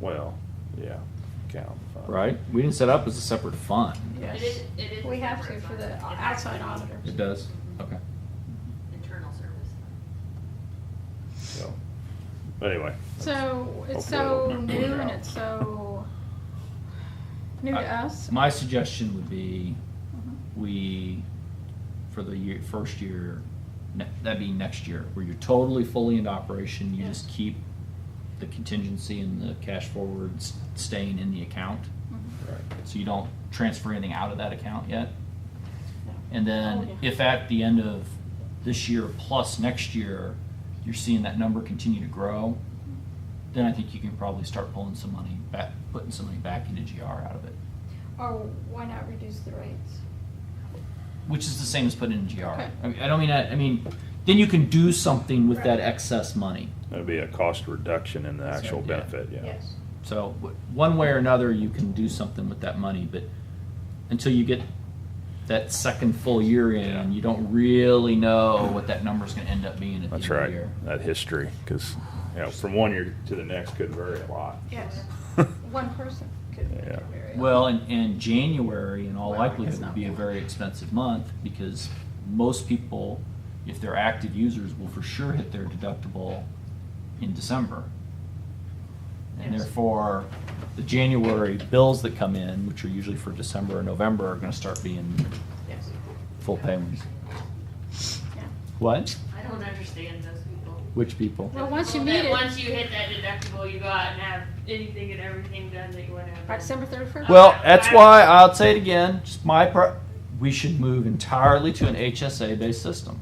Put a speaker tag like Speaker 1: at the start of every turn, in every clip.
Speaker 1: Well, yeah, count. fine.
Speaker 2: right? We didn't set up as a separate fund.
Speaker 3: Yes.
Speaker 4: It is- it is
Speaker 3: We
Speaker 4: a
Speaker 3: have to
Speaker 4: separate
Speaker 3: for
Speaker 4: fund.
Speaker 3: the
Speaker 4: It has to
Speaker 3: outside
Speaker 4: be
Speaker 3: auditors.
Speaker 2: It does? Okay.
Speaker 4: Internal service.
Speaker 1: So, anyway.
Speaker 3: So, it's
Speaker 1: Hopefully it'll
Speaker 3: so
Speaker 1: remember
Speaker 3: new
Speaker 1: it
Speaker 3: and
Speaker 1: out.
Speaker 3: it's so new to
Speaker 2: I-
Speaker 3: us.
Speaker 2: My suggestion would be
Speaker 3: Mhm.
Speaker 2: we, for the year, first year, ne- that'd be next year, where you're totally fully in operation, you
Speaker 3: Yeah.
Speaker 2: just keep the contingency and the cash forwards staying in the account.
Speaker 3: Mhm.
Speaker 1: Right.
Speaker 2: So you don't transfer anything out of that account yet.
Speaker 3: Yeah.
Speaker 2: And
Speaker 3: Oh,
Speaker 2: then
Speaker 3: yeah.
Speaker 2: if at the end of this year plus next year, you're seeing that number continue to grow, then I think you can probably start pulling some money back, putting some money back into GR out of it,
Speaker 3: Or Oh, why not reduce the rates?
Speaker 2: which is the same as putting in GR.
Speaker 3: Okay.
Speaker 2: I mean, I don't mean that, I mean, then you can do something with that
Speaker 3: Right.
Speaker 2: excess money.
Speaker 1: That'd be a cost reduction in the
Speaker 2: That's
Speaker 1: actual
Speaker 2: right, yeah.
Speaker 1: benefit, yeah.
Speaker 3: Yes.
Speaker 2: So w- one way or another, you can do something with that money, but until you get that second full year
Speaker 1: Yeah.
Speaker 2: in, you don't really know what that number's gonna end up being at the end of
Speaker 1: That's
Speaker 2: the
Speaker 1: right,
Speaker 2: year.
Speaker 1: that history, because, you know, from one year to the next could vary a lot.
Speaker 3: Yes. One person could make it
Speaker 1: Yeah.
Speaker 3: very.
Speaker 2: Well, and, and January in all
Speaker 3: Well,
Speaker 2: likelihood
Speaker 3: it's
Speaker 2: would
Speaker 3: not
Speaker 2: be a
Speaker 3: much.
Speaker 2: very expensive month because most people, if they're active users, will for sure hit their deductible in December. And
Speaker 3: Yes.
Speaker 2: therefore, the January bills that come in, which are usually for December or November, are gonna start being
Speaker 3: Yes.
Speaker 2: full payments.
Speaker 3: Yeah.
Speaker 2: What?
Speaker 4: I don't understand those people.
Speaker 2: Which people?
Speaker 3: Well, once you
Speaker 4: People that
Speaker 3: meet it-
Speaker 4: Once you hit that deductible, you go out and have anything and everything done that you wanna have.
Speaker 3: By
Speaker 4: done.
Speaker 3: December thirty-first?
Speaker 2: Well, that's why I'll say it again, just my pro, we should move entirely to an HSA-based system.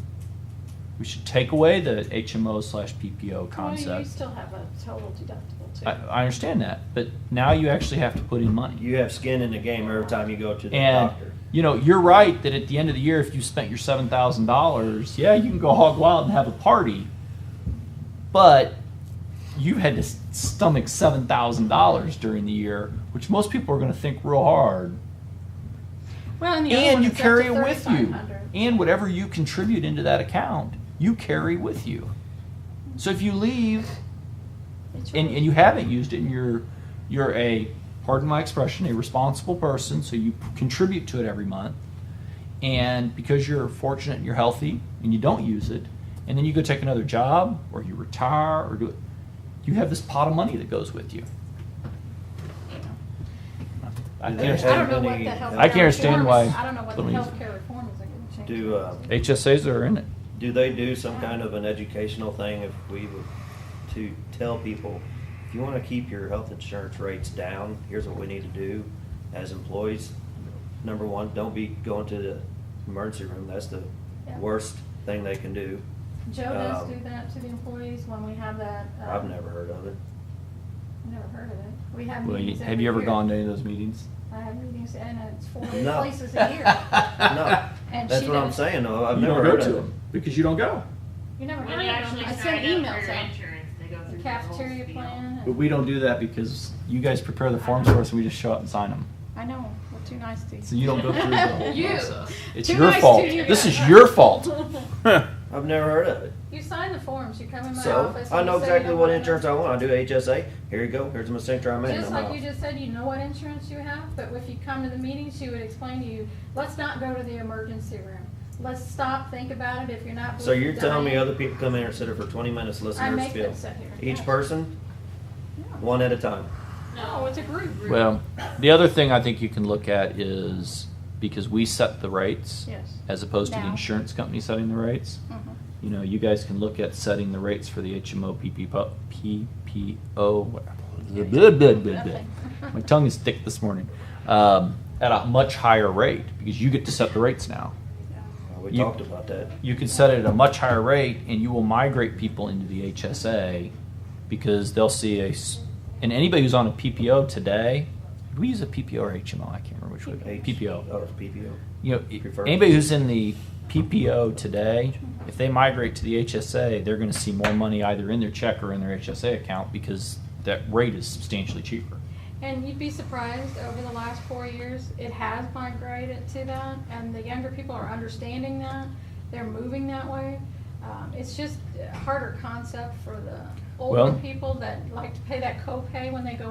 Speaker 2: We should take away the HMO slash PPO
Speaker 3: You
Speaker 2: concept.
Speaker 3: still have a total deductible too.
Speaker 2: I, uh, I understand that, but now you actually have to put in money.
Speaker 5: You have skin in the game every time you go to the
Speaker 2: And,
Speaker 5: doctor.
Speaker 2: you know, you're right that at the end of the year, if you spent your seven thousand dollars, yeah, you can go hog wild and have a party. But you had to stomach seven thousand dollars during the year, which most people are gonna think real hard.
Speaker 3: Well, and the other
Speaker 2: and
Speaker 3: one
Speaker 2: you
Speaker 3: is up
Speaker 2: carry
Speaker 3: to
Speaker 2: it with you
Speaker 3: 3,500.
Speaker 2: and whatever you contribute into that account you carry with you so if you leave
Speaker 3: It's
Speaker 2: and,
Speaker 3: yours.
Speaker 2: and you haven't used it and you're you're a pardon my expression a responsible person so you p- contribute to it every month and because you're fortunate and you're healthy and you don't use it and then you go take another job or you retire or do it you have this pot of money that goes with you I
Speaker 5: There
Speaker 3: I don't
Speaker 2: can't-
Speaker 3: know what the
Speaker 5: Any-
Speaker 3: healthcare.
Speaker 2: I can't understand
Speaker 3: reform is.
Speaker 2: why-
Speaker 3: I don't know what the
Speaker 2: believe-
Speaker 3: healthcare reform is going to change.
Speaker 5: Do, uh,
Speaker 2: HSAs are in it
Speaker 5: Do they do some kind of an educational thing if we were to tell people, if you want to keep your health insurance rates down, here's what we need to do as employees. Number one, don't be going to the emergency room. That's the
Speaker 3: Yeah.
Speaker 5: worst thing they can do.
Speaker 3: Joe does
Speaker 5: um,
Speaker 3: do that to the employees when we have that. uh,
Speaker 5: I've never heard of it.
Speaker 3: Never heard of it. We have
Speaker 2: Well, you-
Speaker 3: meetings
Speaker 2: have you ever
Speaker 3: every
Speaker 2: gone to
Speaker 3: year.
Speaker 2: any of those meetings?
Speaker 3: I have meetings and it's four
Speaker 5: No.
Speaker 3: places a year.
Speaker 5: No,
Speaker 3: And
Speaker 5: that's
Speaker 3: she
Speaker 5: what I'm
Speaker 3: does.
Speaker 5: saying though. I've
Speaker 2: you
Speaker 5: never
Speaker 2: don't go
Speaker 5: heard
Speaker 2: to
Speaker 5: of it.
Speaker 2: them because you don't go.
Speaker 3: You never
Speaker 4: When
Speaker 3: heard
Speaker 4: you
Speaker 3: of them.
Speaker 4: actually
Speaker 3: I send
Speaker 4: sign up
Speaker 3: emails
Speaker 4: for your
Speaker 3: out.
Speaker 4: insurance, they go
Speaker 3: The
Speaker 4: through the whole
Speaker 3: cafeteria
Speaker 4: spiel.
Speaker 3: plan.
Speaker 2: But we don't do that because you guys prepare the forms for us and we just show up and sign them.
Speaker 3: I know, we're too nice to you.
Speaker 2: So you don't go through the whole
Speaker 3: You.
Speaker 2: process. It's
Speaker 3: Too
Speaker 2: your
Speaker 3: nice to
Speaker 2: fault.
Speaker 3: you
Speaker 2: This
Speaker 3: guys.
Speaker 2: is your fault.
Speaker 5: I've never heard of it.
Speaker 3: You sign the forms, you come in my
Speaker 5: So
Speaker 3: office.
Speaker 5: I
Speaker 3: and
Speaker 5: know
Speaker 3: you say you
Speaker 5: exactly
Speaker 3: don't
Speaker 5: what
Speaker 3: want
Speaker 5: insurance I
Speaker 3: nothing.
Speaker 5: want. I do HSA. Here you go. Here's my signature. I'm in.
Speaker 3: Just
Speaker 5: I'm
Speaker 3: like
Speaker 5: out.
Speaker 3: you just said, you know what insurance you have, but if you come to the meeting, she would explain to you, let's not go to the emergency room. Let's stop, think about it, if you're not.
Speaker 5: So you're telling me
Speaker 3: dying-
Speaker 5: other people come in here, sit here for twenty minutes, listen
Speaker 3: I
Speaker 5: to her
Speaker 3: make them
Speaker 5: spiel?
Speaker 3: sit here.
Speaker 5: Each
Speaker 3: yes.
Speaker 5: person,
Speaker 3: Yeah.
Speaker 5: one at a time.
Speaker 3: No, it's a group.
Speaker 2: Well, the other thing I think you can look at is because we set the rates
Speaker 3: Yes.
Speaker 2: as opposed to the
Speaker 3: Now.
Speaker 2: insurance company setting the rates.
Speaker 3: Mhm.
Speaker 2: You know, you guys can look at setting the rates for the HMO PPO. PPO blah, blah, blah, blah, blah. My tongue is thick this morning. Um, at a much higher rate because you get to set the rates now.
Speaker 5: Uh, We
Speaker 2: You-
Speaker 5: talked about that.
Speaker 2: you can set it at a much higher rate and you will migrate people into the HSA because they'll see a s- and anybody who's on a PPO today did we use a PPO or HMO I can't remember which one
Speaker 5: H-
Speaker 2: PPO
Speaker 5: Oh, it's PPO.
Speaker 2: you know i-
Speaker 5: Preferred.
Speaker 2: anybody who's in the PPO today if they migrate to the HSA they're going to see more money either in their check or in their HSA account because that rate is substantially cheaper
Speaker 3: And you'd be surprised, over the last four years, it has migrated to that, and the younger people are understanding that, they're moving that way. Um, it's just a harder concept for the older
Speaker 2: Well-
Speaker 3: people that like to pay that copay when they go